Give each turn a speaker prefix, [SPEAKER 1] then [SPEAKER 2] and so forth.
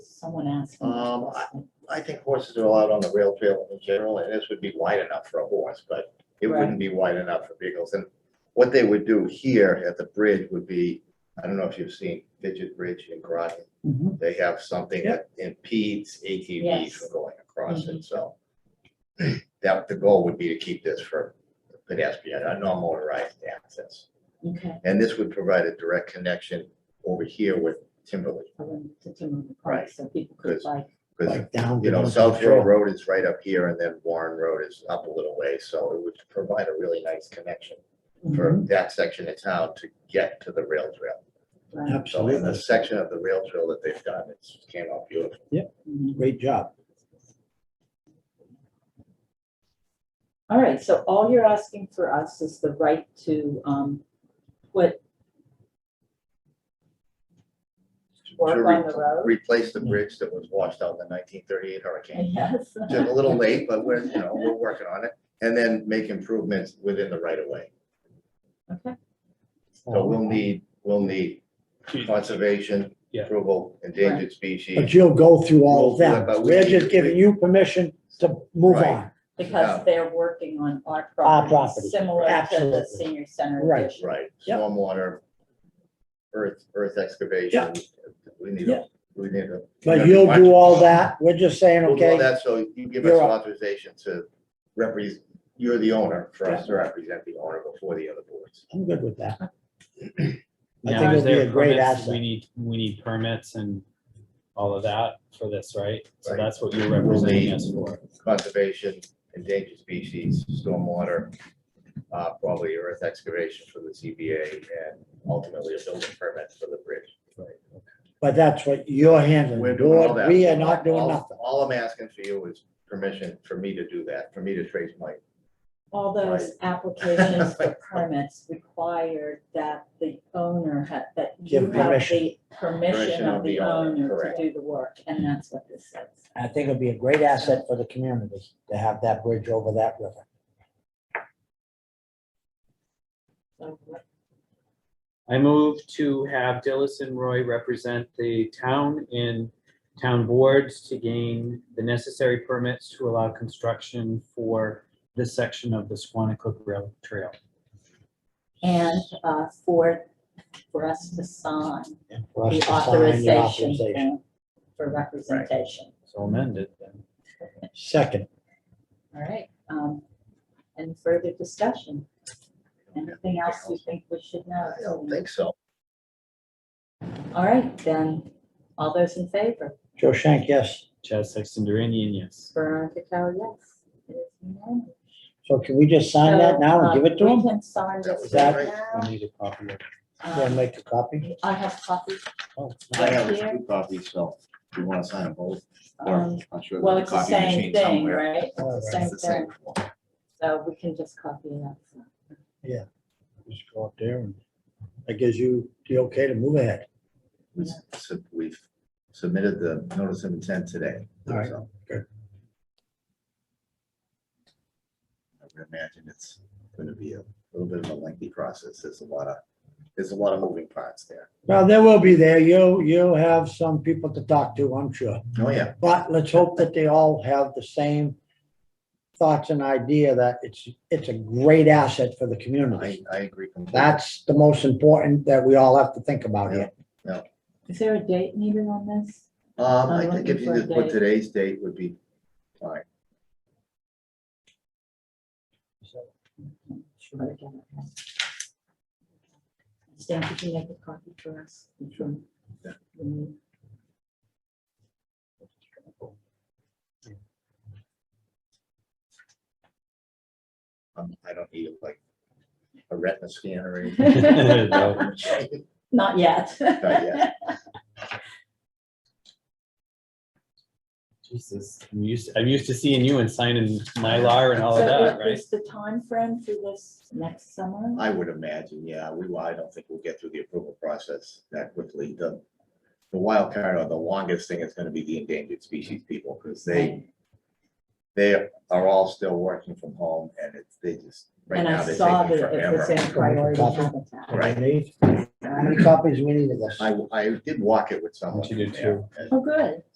[SPEAKER 1] Someone asked. me that
[SPEAKER 2] Um, I,
[SPEAKER 1] question.
[SPEAKER 2] I think horses are allowed on the rail trail in general, and this would be wide enough for a horse, but it
[SPEAKER 1] Right.
[SPEAKER 2] wouldn't be wide enough for vehicles. And what they would do here at the bridge would be, I don't know if you've seen Fidget Bridge in Groton,
[SPEAKER 1] Mhm.
[SPEAKER 2] they have something that impedes ATVs
[SPEAKER 1] Yes. Mm-hmm.
[SPEAKER 2] from going across it, so. That, the goal would be to keep this for pedestrian, uh, non-motorized access.
[SPEAKER 1] Okay.
[SPEAKER 2] And this would provide a direct connection over here with Timberley,
[SPEAKER 1] I wouldn't put them on the
[SPEAKER 2] Right.
[SPEAKER 1] card, So people could
[SPEAKER 2] Because-
[SPEAKER 1] like,
[SPEAKER 2] because
[SPEAKER 3] like down.
[SPEAKER 2] you know,
[SPEAKER 3] below
[SPEAKER 2] South
[SPEAKER 3] the trail.
[SPEAKER 2] Shore Road is right up here and then Warren Road is up a little way, so it would provide a really nice connection for
[SPEAKER 1] mhm,
[SPEAKER 2] that section of town to get to the rail trail.
[SPEAKER 1] right,
[SPEAKER 2] So in the
[SPEAKER 3] Absolutely.
[SPEAKER 2] section of the rail trail that they've done, it's came out beautiful.
[SPEAKER 1] mhm.
[SPEAKER 3] Great job.
[SPEAKER 1] All right, so all you're asking for us is the right to, um, put
[SPEAKER 2] To
[SPEAKER 1] work on
[SPEAKER 2] re-
[SPEAKER 1] the road.
[SPEAKER 2] Replace the bridge that was washed out in the nineteen thirty-eight hurricane.
[SPEAKER 1] Yes.
[SPEAKER 2] Just a little late, but we're, you know, we're working on it. And then make improvements within the right of way.
[SPEAKER 1] Okay,
[SPEAKER 2] So
[SPEAKER 3] Oh. Um,
[SPEAKER 2] we'll need, we'll need conservation,
[SPEAKER 4] Yeah.
[SPEAKER 2] approval, endangered species.
[SPEAKER 3] But you'll go through all of
[SPEAKER 2] We'll-
[SPEAKER 3] that.
[SPEAKER 2] but we
[SPEAKER 3] We're
[SPEAKER 2] need-
[SPEAKER 3] just giving you permission to move
[SPEAKER 2] Right.
[SPEAKER 3] on.
[SPEAKER 1] Because they're working on our
[SPEAKER 3] Our
[SPEAKER 1] property,
[SPEAKER 3] property,
[SPEAKER 1] similar to the
[SPEAKER 3] absolutely.
[SPEAKER 1] senior center
[SPEAKER 3] Right.
[SPEAKER 1] addition.
[SPEAKER 2] Right,
[SPEAKER 3] Yep.
[SPEAKER 2] stormwater, earth, earth excavation, we need, a- we need a.
[SPEAKER 3] But you'll do all that. We're just saying,
[SPEAKER 2] We'll do all
[SPEAKER 3] okay,
[SPEAKER 2] that, so you give us
[SPEAKER 3] You're up.
[SPEAKER 2] authorization to represent, you're the owner, for us to represent the owner before the other boards.
[SPEAKER 3] I'm good with that. I
[SPEAKER 4] Now,
[SPEAKER 3] think it'll
[SPEAKER 4] is
[SPEAKER 3] be
[SPEAKER 4] there
[SPEAKER 3] a great
[SPEAKER 4] permits? We
[SPEAKER 3] asset.
[SPEAKER 4] need, we need permits and all of that for this, right? So
[SPEAKER 2] Right.
[SPEAKER 4] that's what you're
[SPEAKER 2] We'll
[SPEAKER 4] representing
[SPEAKER 2] need-
[SPEAKER 4] us for.
[SPEAKER 2] Conservation, endangered species, stormwater, uh, probably earth excavation for the CBA, and ultimately a building permit for the bridge.
[SPEAKER 3] But that's what you're handling.
[SPEAKER 2] We're doing all
[SPEAKER 3] Lord,
[SPEAKER 2] that.
[SPEAKER 3] we are not doing
[SPEAKER 2] All-
[SPEAKER 3] nothing.
[SPEAKER 2] All I'm asking for you is permission for me to do that, for me to trace my
[SPEAKER 1] All those applications for permits required that the owner had, that you
[SPEAKER 3] Give
[SPEAKER 1] have
[SPEAKER 3] permission.
[SPEAKER 1] the permission of the owner to
[SPEAKER 2] correct.
[SPEAKER 1] do the work, and that's what this says.
[SPEAKER 3] I think it'll be a great asset for the community to have that bridge over that river.
[SPEAKER 1] So what-
[SPEAKER 4] I move to have Dillis and Roy represent the town in town boards to gain the necessary permits to allow construction for this section of the Squanicook Rail Trail.
[SPEAKER 1] And uh, for, for us to sign
[SPEAKER 3] and for us
[SPEAKER 1] the
[SPEAKER 3] to sign the
[SPEAKER 1] authorization
[SPEAKER 3] authorization.
[SPEAKER 1] form for representation,
[SPEAKER 4] So amended then.
[SPEAKER 3] Second,
[SPEAKER 1] all right? um, And further discussion. Anything else you think we should know?
[SPEAKER 2] I don't think so.
[SPEAKER 1] All right, then, all those in favor?
[SPEAKER 3] Joe Shank, yes.
[SPEAKER 4] Chaz Sexton Duranian, yes.
[SPEAKER 1] Veronica Cal, yes. It is unanimous.
[SPEAKER 3] So can we just sign that now and
[SPEAKER 1] So,
[SPEAKER 3] give it to
[SPEAKER 1] um,
[SPEAKER 3] him?
[SPEAKER 1] We can sign
[SPEAKER 2] That
[SPEAKER 1] this
[SPEAKER 2] was
[SPEAKER 1] right
[SPEAKER 3] it,
[SPEAKER 4] We
[SPEAKER 1] now.
[SPEAKER 4] need a copy of
[SPEAKER 3] We'll
[SPEAKER 1] Um,
[SPEAKER 3] make a copy.
[SPEAKER 1] I have copies.
[SPEAKER 3] Oh,
[SPEAKER 2] I have two copies, so if you want to sign them both, or
[SPEAKER 1] um,
[SPEAKER 2] I'm sure
[SPEAKER 1] Well,
[SPEAKER 2] there's a
[SPEAKER 1] it's the
[SPEAKER 2] copy
[SPEAKER 1] same
[SPEAKER 2] machine
[SPEAKER 1] thing,
[SPEAKER 2] somewhere.
[SPEAKER 1] right? It's
[SPEAKER 3] All
[SPEAKER 1] the
[SPEAKER 3] right.
[SPEAKER 1] same
[SPEAKER 2] It's the same
[SPEAKER 1] thing, so we can just copy it up.
[SPEAKER 3] Just go up there and that gives you the okay to move ahead.
[SPEAKER 2] We've sub- We've submitted the notice of intent today.
[SPEAKER 3] All right,
[SPEAKER 2] so.
[SPEAKER 3] good.
[SPEAKER 2] I would imagine it's going to be a little bit of a lengthy process. There's a lot of, there's a lot of moving parts there.
[SPEAKER 3] Well, they will be there. You'll, you'll have some people to talk to, I'm sure.
[SPEAKER 2] Oh, yeah.
[SPEAKER 3] But let's hope that they all have the same thoughts and idea that it's, it's a great asset for the
[SPEAKER 2] I,
[SPEAKER 3] community.
[SPEAKER 2] I agree completely.
[SPEAKER 3] That's the most important that we all have to think about here.
[SPEAKER 1] Is there a date needed on this?
[SPEAKER 2] Um,
[SPEAKER 1] I'm
[SPEAKER 2] I think if
[SPEAKER 1] looking
[SPEAKER 2] you
[SPEAKER 1] for a
[SPEAKER 2] just put
[SPEAKER 1] date.
[SPEAKER 2] today's date would be fine.
[SPEAKER 1] Sure. Stan, could you make a copy for us? Sure.
[SPEAKER 2] Yeah. Um, I don't need like a retina scan or anything.
[SPEAKER 4] it. No.
[SPEAKER 1] Not yet.
[SPEAKER 2] Not yet.
[SPEAKER 4] Jesus, I'm used, I'm used to seeing you and signing Mylar and all
[SPEAKER 1] So
[SPEAKER 4] of Oh, that,
[SPEAKER 1] what
[SPEAKER 4] right?
[SPEAKER 1] is the timeframe for this next summer?
[SPEAKER 2] I would imagine, yeah, we, well, I don't think we'll get through the approval process that quickly. The, the wild card or the longest thing is gonna be the endangered species people, because they, they are all still working from home and it's, they just, right
[SPEAKER 1] And
[SPEAKER 2] now,
[SPEAKER 1] I
[SPEAKER 2] they're
[SPEAKER 1] saw
[SPEAKER 2] taking
[SPEAKER 1] that it was
[SPEAKER 2] forever.
[SPEAKER 1] in priority
[SPEAKER 3] Copy.
[SPEAKER 1] habitat.
[SPEAKER 2] Right.
[SPEAKER 3] How many copies we need of this?
[SPEAKER 2] I, I did walk it with someone.
[SPEAKER 4] You did
[SPEAKER 2] from there,
[SPEAKER 4] too.
[SPEAKER 2] and
[SPEAKER 1] Oh, good.